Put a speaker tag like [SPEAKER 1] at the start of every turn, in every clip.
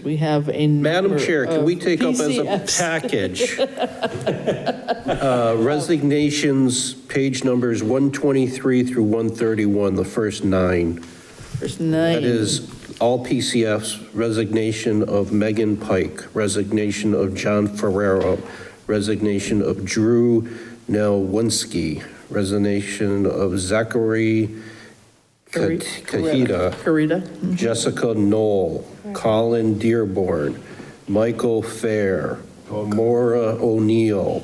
[SPEAKER 1] We have a.
[SPEAKER 2] Madam
[SPEAKER 1] number
[SPEAKER 2] Chair, can we
[SPEAKER 1] of
[SPEAKER 2] take up as a
[SPEAKER 1] PCFs.
[SPEAKER 2] package uh, resignations, page numbers 123 through 131, the first nine?
[SPEAKER 1] There's nine.
[SPEAKER 2] That is all PCFs, resignation of Megan Pike, resignation of John Ferrero, resignation of Drew Nelwinski, resignation of Zachary
[SPEAKER 1] Correct.
[SPEAKER 2] Kahita,
[SPEAKER 1] Correct. Corita.
[SPEAKER 2] Jessica Knoll, Colin Dearborn, Michael Fair, Maura O'Neill,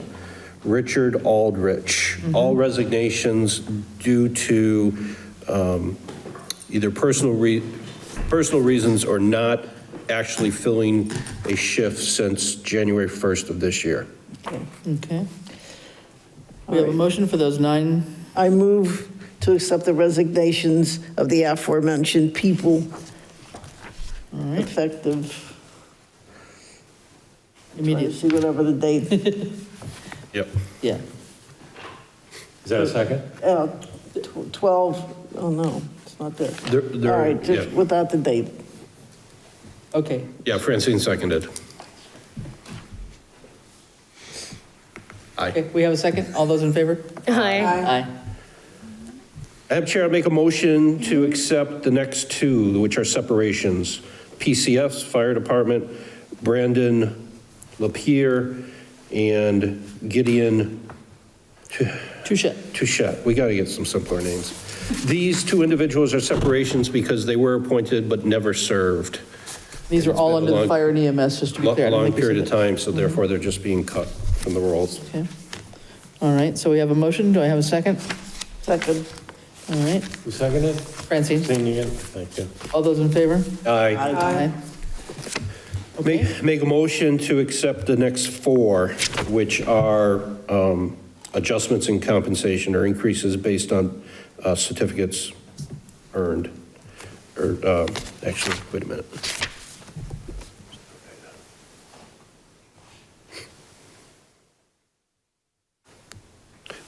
[SPEAKER 2] Richard Aldrich, all resignations due to um, either personal re, personal reasons or not actually filling a shift since January 1st of this year.
[SPEAKER 1] Okay. We have a motion for those nine.
[SPEAKER 3] I move to accept the resignations of the aforementioned people
[SPEAKER 1] All right,
[SPEAKER 3] effective, trying to
[SPEAKER 1] immediate,
[SPEAKER 3] see whatever the date,
[SPEAKER 2] Yep.
[SPEAKER 1] yeah.
[SPEAKER 4] Is that a second?
[SPEAKER 3] uh, tw- 12, oh no, it's not there.
[SPEAKER 2] There- there-
[SPEAKER 3] All right, just
[SPEAKER 2] yeah.
[SPEAKER 3] without the date.
[SPEAKER 1] Okay,
[SPEAKER 2] Yeah, Francine seconded. Aye.
[SPEAKER 1] okay, we have a second? All those in favor?
[SPEAKER 5] Hi.
[SPEAKER 1] Aye.
[SPEAKER 2] Madam Chair, I make a motion to accept the next two, which are separations. PCF's Fire Department, Brandon Lapierre and Gideon
[SPEAKER 1] Touche.
[SPEAKER 2] Touchette. We got to get some simpler names. These two individuals are separations because they were appointed but never served
[SPEAKER 1] These are all
[SPEAKER 2] It's
[SPEAKER 1] under
[SPEAKER 2] been a
[SPEAKER 1] the
[SPEAKER 2] long-
[SPEAKER 1] fire and EMS, just to be
[SPEAKER 2] a
[SPEAKER 1] clear. I don't
[SPEAKER 2] long
[SPEAKER 1] think we
[SPEAKER 2] period of
[SPEAKER 1] said
[SPEAKER 2] time, so therefore they're just being cut from the rolls.
[SPEAKER 1] that. Okay. All right, so we have a motion. Do I have a second?
[SPEAKER 3] Second,
[SPEAKER 1] All right,
[SPEAKER 4] Who seconded?
[SPEAKER 1] Francine,
[SPEAKER 4] Seeing you again? Thank you.
[SPEAKER 1] all those in favor?
[SPEAKER 2] Aye.
[SPEAKER 1] Aye.
[SPEAKER 2] Make, make a motion to accept the next four, which are um, adjustments in compensation or increases based on uh, certificates earned. Or, uh, actually, wait a minute.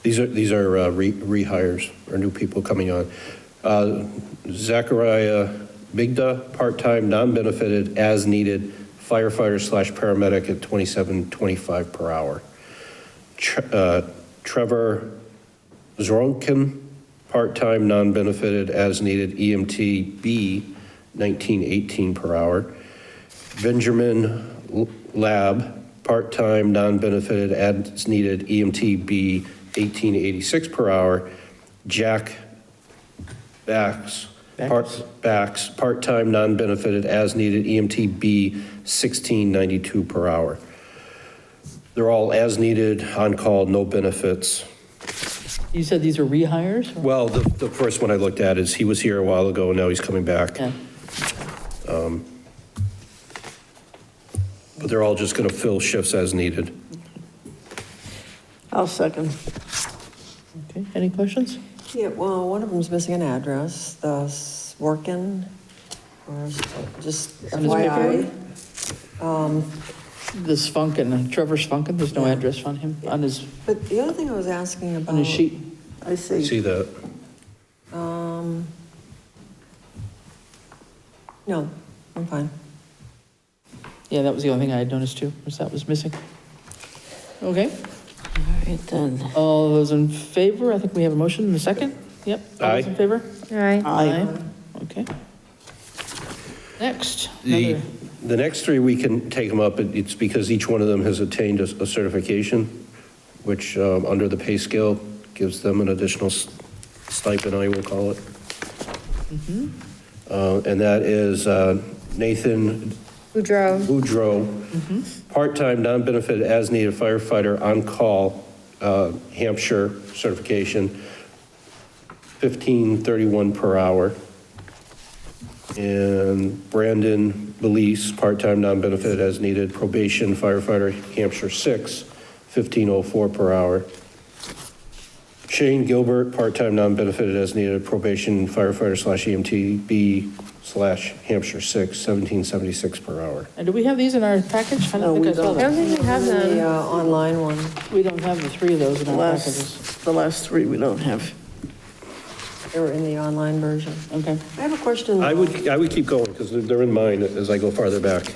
[SPEAKER 2] These are, these are uh, re- rehires or new people coming on. Uh, Zachariah Migda, part-time, non-benefited, as-needed firefighter slash paramedic at 27.25 per hour. Tr- uh, Trevor Zoronkin, part-time, non-benefited, as-needed EMT B, 19.18 per hour. Benjamin L- Lab, part-time, non-benefited, as-needed EMT B, 18.86 per hour. Jack Bax, part, Bax, part-time, non-benefited, as-needed EMT B, 16.92 per hour. They're all as-needed, on-call, no benefits.
[SPEAKER 1] You said these are rehires? or-
[SPEAKER 2] Well, the, the first one I looked at is, he was here a while ago, and now he's coming back.
[SPEAKER 1] Yeah.
[SPEAKER 2] But they're all just going to fill shifts as needed.
[SPEAKER 3] I'll second.
[SPEAKER 1] Okay, any questions?
[SPEAKER 6] Yeah, well, one of them's missing an address, the Sworkin, or s- just FYI.
[SPEAKER 1] The Spunkin, Trevor Spunkin, there's no address on him, on his,
[SPEAKER 6] But the other thing I was asking about.
[SPEAKER 1] on
[SPEAKER 3] Oh.
[SPEAKER 1] his sheet.
[SPEAKER 3] I see.
[SPEAKER 2] See that?
[SPEAKER 6] Um, No, I'm fine.
[SPEAKER 1] Yeah, that was the only thing I had noticed too, was that was missing. Okay,
[SPEAKER 3] All right, then.
[SPEAKER 1] all those in favor, I think we have a motion and a second? Yep, all those
[SPEAKER 2] Aye.
[SPEAKER 1] in favor?
[SPEAKER 5] Hi.
[SPEAKER 3] Aye.
[SPEAKER 1] Okay. Next,
[SPEAKER 2] The,
[SPEAKER 1] another,
[SPEAKER 2] the next three, we can take them up, It- it's because each one of them has attained a a certification, which, um, under the pay scale, gives them an additional s- stipend, I will call it. Uh, And that is uh, Nathan
[SPEAKER 5] Boudreaux.
[SPEAKER 2] Boudreau, part-time, non-benefited, as-needed firefighter on-call, uh, Hampshire certification, 1531 per hour. And Brandon Belize, part-time, non-benefited, as-needed probation firefighter, Hampshire 6, 1504 per hour. Shane Gilbert, part-time, non-benefited, as-needed probation firefighter slash EMT, B slash Hampshire 6, 1776 per hour.
[SPEAKER 1] and do we have these in our package? I
[SPEAKER 3] No,
[SPEAKER 1] don't
[SPEAKER 3] we
[SPEAKER 1] think I saw
[SPEAKER 3] don't.
[SPEAKER 5] I don't
[SPEAKER 1] that.
[SPEAKER 5] think we have
[SPEAKER 6] The
[SPEAKER 5] them.
[SPEAKER 6] uh, online one,
[SPEAKER 1] We don't have the three of those in
[SPEAKER 3] The
[SPEAKER 1] our packages.
[SPEAKER 3] last, the last three we don't have.
[SPEAKER 6] they were in the online version.
[SPEAKER 1] Okay.
[SPEAKER 6] I have a question.
[SPEAKER 2] I
[SPEAKER 6] though.
[SPEAKER 2] would, I would keep going, because they're in mine as I go farther back.